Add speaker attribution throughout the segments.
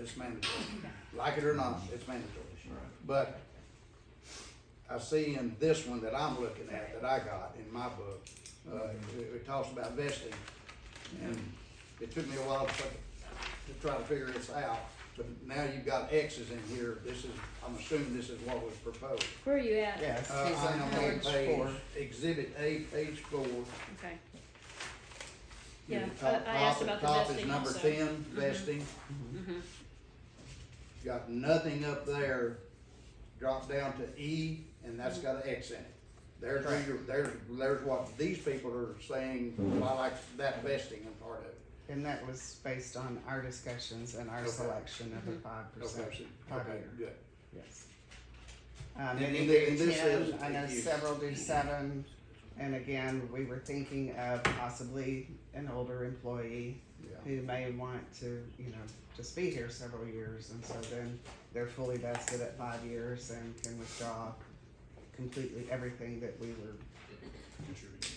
Speaker 1: it's mandatory. Like it or not, it's mandatory.
Speaker 2: Right.
Speaker 1: But I see in this one that I'm looking at, that I got in my book, uh, it, it talks about vesting. And it took me a while to, to try to figure this out, but now you've got X's in here, this is, I'm assuming this is what was proposed.
Speaker 3: Where are you at?
Speaker 2: Yes,
Speaker 1: Uh,
Speaker 2: he's
Speaker 1: I
Speaker 2: on
Speaker 1: am
Speaker 2: page four.
Speaker 1: Exhibit A, page four.
Speaker 3: Okay.
Speaker 1: You
Speaker 3: Yeah,
Speaker 1: know, top-
Speaker 3: I- I asked
Speaker 1: top-
Speaker 3: about the vesting
Speaker 1: Top is
Speaker 3: also. Mm-hmm.
Speaker 1: number ten, vesting. Got nothing up there, drop down to E, and that's got an X in it. There's, where you're- there's, there's what these people are saying, I like that vesting and part of it.
Speaker 2: And that was based on our discussions and our
Speaker 1: Okay. Mm-hmm.
Speaker 2: selection of the five percent
Speaker 1: Okay, so-
Speaker 2: five
Speaker 1: okay,
Speaker 2: year,
Speaker 1: good.
Speaker 2: yes. Um,
Speaker 1: And- and
Speaker 2: and they
Speaker 1: the- and
Speaker 2: do
Speaker 1: this
Speaker 2: ten,
Speaker 1: is-
Speaker 2: I know
Speaker 1: you-
Speaker 2: several do seven, and again, we were thinking of possibly an older employee
Speaker 1: Yeah,
Speaker 2: who may want to, you know, just be here several years, and so then they're fully vested at five years and can withdraw completely everything that we were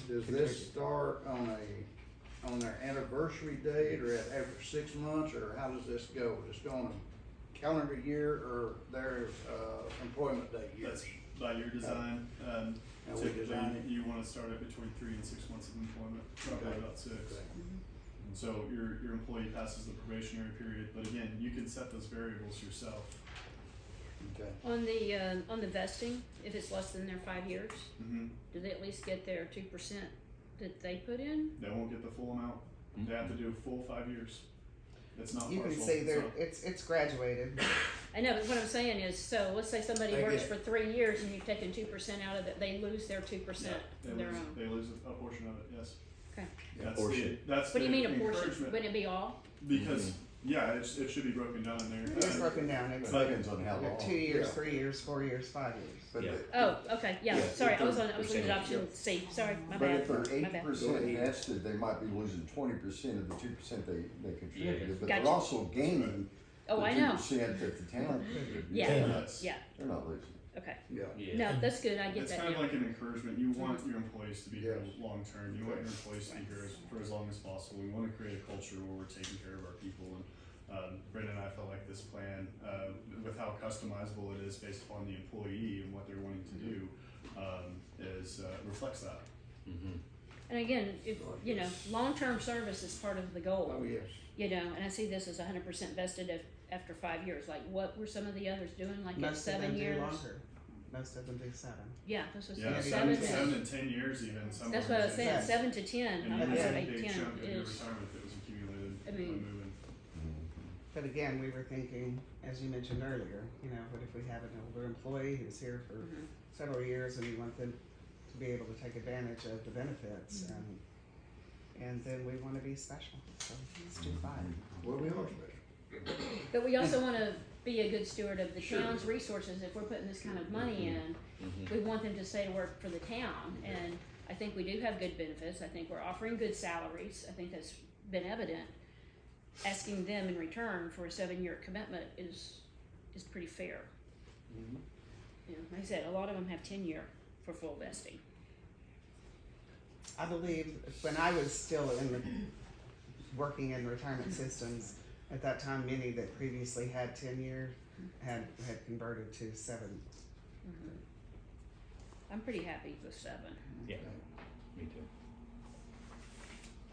Speaker 1: does this start on a, on their anniversary date, or at, after six months, or how does this go? Does it go on a calendar year, or their, uh, employment date year?
Speaker 4: That's by your design, um,
Speaker 1: How we
Speaker 4: typically
Speaker 1: design it.
Speaker 4: you wanna start at between three and six months of employment,
Speaker 1: Okay.
Speaker 4: probably about six.
Speaker 1: Okay.
Speaker 4: So your, your employee passes the probationary period, but again, you can set those variables yourself.
Speaker 1: Okay.
Speaker 3: On the, uh, on the vesting, if it's less than their five years,
Speaker 4: Mm-hmm.
Speaker 3: do they at least get their two percent that they put in?
Speaker 4: They won't get the full amount, they have to do a full five years. It's not
Speaker 2: You
Speaker 4: partial,
Speaker 2: can see there,
Speaker 4: so,
Speaker 2: it's, it's graduated,
Speaker 3: I know, but what I'm saying is, so let's say somebody
Speaker 1: They
Speaker 3: works
Speaker 1: get-
Speaker 3: for three years and you've taken two percent out of it, they lose their two
Speaker 4: yeah,
Speaker 3: percent,
Speaker 4: they
Speaker 3: their
Speaker 4: lose,
Speaker 3: own.
Speaker 4: they lose a a portion of it, yes.
Speaker 3: Okay.
Speaker 1: Yeah,
Speaker 4: That's the,
Speaker 5: portion.
Speaker 3: What
Speaker 4: that's the
Speaker 3: do you mean a portion?
Speaker 4: encouragement,
Speaker 3: Wouldn't it be all?
Speaker 4: because, yeah, it's, it should be broken down in there. Uh,
Speaker 2: it's
Speaker 4: And-
Speaker 2: broken down, it's
Speaker 4: But-
Speaker 5: Depends on how long.
Speaker 2: two years,
Speaker 1: yeah.
Speaker 2: three years, four years, five years.
Speaker 5: But
Speaker 6: Yeah.
Speaker 5: the-
Speaker 3: Oh, okay, yeah,
Speaker 5: Yeah,
Speaker 3: sorry, I was on, I was looking at
Speaker 5: 30%,
Speaker 3: option C, sorry, my
Speaker 5: But
Speaker 3: bad,
Speaker 5: if they're
Speaker 3: my
Speaker 5: eight
Speaker 3: bad.
Speaker 5: percent vested, they might be losing twenty percent of the two percent they, they contributed, but
Speaker 3: Gotcha.
Speaker 5: they're also gaining
Speaker 3: Oh, I
Speaker 5: the two
Speaker 3: know,
Speaker 5: percent that the town contributed.
Speaker 3: Yeah.
Speaker 5: They're not-
Speaker 3: yeah,
Speaker 5: They're not losing.
Speaker 3: okay,
Speaker 1: Yeah,
Speaker 6: Yeah.
Speaker 3: no, that's good, I get
Speaker 4: It's
Speaker 3: that Mm-hmm.
Speaker 4: kind of
Speaker 3: now,
Speaker 4: like an encouragement. You want your employees to be here
Speaker 1: Yes.
Speaker 4: long term. You want your employees to be here as- for as long as possible. We want to create a culture where we're taking care of our people. And um, Brendan and I felt like this plan, uh, with how customizable it is based upon the employee and what they're wanting to do, um, is uh, reflects that.
Speaker 6: Mm-hmm.
Speaker 3: and again, if, you know, long-term service is part of the goal.
Speaker 1: oh, yes.
Speaker 3: you know, and I see this as hundred percent vested af after five years, like what were some of the others doing, like at
Speaker 2: Most of
Speaker 3: seven
Speaker 2: them
Speaker 3: years?
Speaker 2: do longer, most of them do seven.
Speaker 3: Yeah, that's what I
Speaker 4: Yeah,
Speaker 3: said,
Speaker 2: maybe
Speaker 3: seven
Speaker 4: seven,
Speaker 2: to-
Speaker 4: seven
Speaker 3: to,
Speaker 4: and ten years even. Some
Speaker 3: that's what I was saying,
Speaker 2: organizations.
Speaker 3: seven to ten, I
Speaker 4: And
Speaker 3: don't
Speaker 4: you
Speaker 3: know,
Speaker 2: Yeah.
Speaker 4: had a
Speaker 3: eight,
Speaker 4: big
Speaker 3: ten
Speaker 4: chunk of your
Speaker 3: is,
Speaker 4: retirement that was accumulated
Speaker 3: I
Speaker 4: by
Speaker 3: mean-
Speaker 4: moving.
Speaker 2: But again, we were thinking, as you mentioned earlier, you know, what if we have an older employee who's here for
Speaker 3: Mhm.
Speaker 2: several years and we want them to be able to take advantage of the benefits
Speaker 3: Mm-hmm.
Speaker 2: and, and then we wanna be special, so let's do five.
Speaker 1: Well, we are special.
Speaker 3: but we also wanna be a good steward of the
Speaker 6: Sure.
Speaker 3: town's resources, if we're putting this kind of money in, we want them to stay to work for the town, and I think we do have good benefits, I think we're offering good salaries, I think that's been evident. Asking them in return for a seven-year commitment is, is pretty fair. You know, like I said, a lot of them have tenure for full vesting.
Speaker 2: I believe when I was still in the, working in retirement systems, at that time, many that previously had tenure had, had converted to seven.
Speaker 3: I'm pretty happy with seven.
Speaker 6: Yeah. Me too.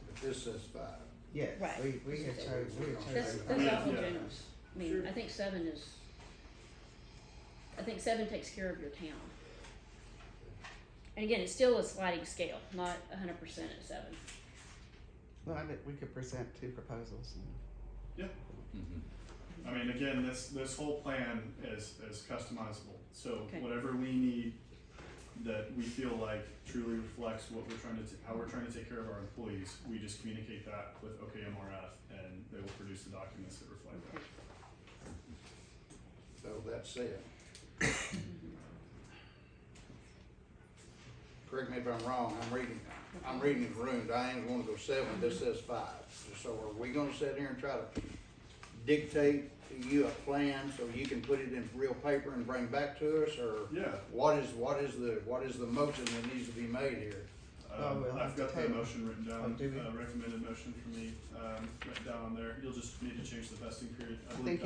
Speaker 1: But This says five.
Speaker 2: Yes,
Speaker 3: Right.
Speaker 2: we, we had chosen, we had chosen.
Speaker 3: That's,
Speaker 2: five.
Speaker 3: that's awful
Speaker 4: Yeah.
Speaker 3: generous. I mean, I think seven is, I think seven takes care of your town. And again, it's still a sliding scale, not a hundred percent at seven.
Speaker 2: Well, I bet we could present two proposals.
Speaker 6: Mm-hmm.
Speaker 4: I mean, again, this, this whole plan is, is customizable, so
Speaker 3: Okay.
Speaker 4: whatever we need that we feel like truly reflects what we're trying to, ta- how we're trying to take care of our employees, we just communicate that with OKMRF and they will produce the documents that reflect that.
Speaker 1: So that's said. Correct me if I'm wrong, I'm reading, I'm reading the room, Diane's wanna go seven, this says five. So are we gonna sit here and try to dictate to you a plan so you can put it in real paper and bring back to us, or?
Speaker 4: Yeah.
Speaker 1: What is, what is the, what is the motion that needs to be made here?
Speaker 2: Oh,
Speaker 4: Um,
Speaker 2: we'll have
Speaker 4: I've
Speaker 2: to
Speaker 4: got the
Speaker 2: table.
Speaker 4: motion written down,
Speaker 2: Oh, do we?
Speaker 4: uh, recommended motion for me, um, written down on there, you'll just need to change the vesting period, I believe
Speaker 2: Thank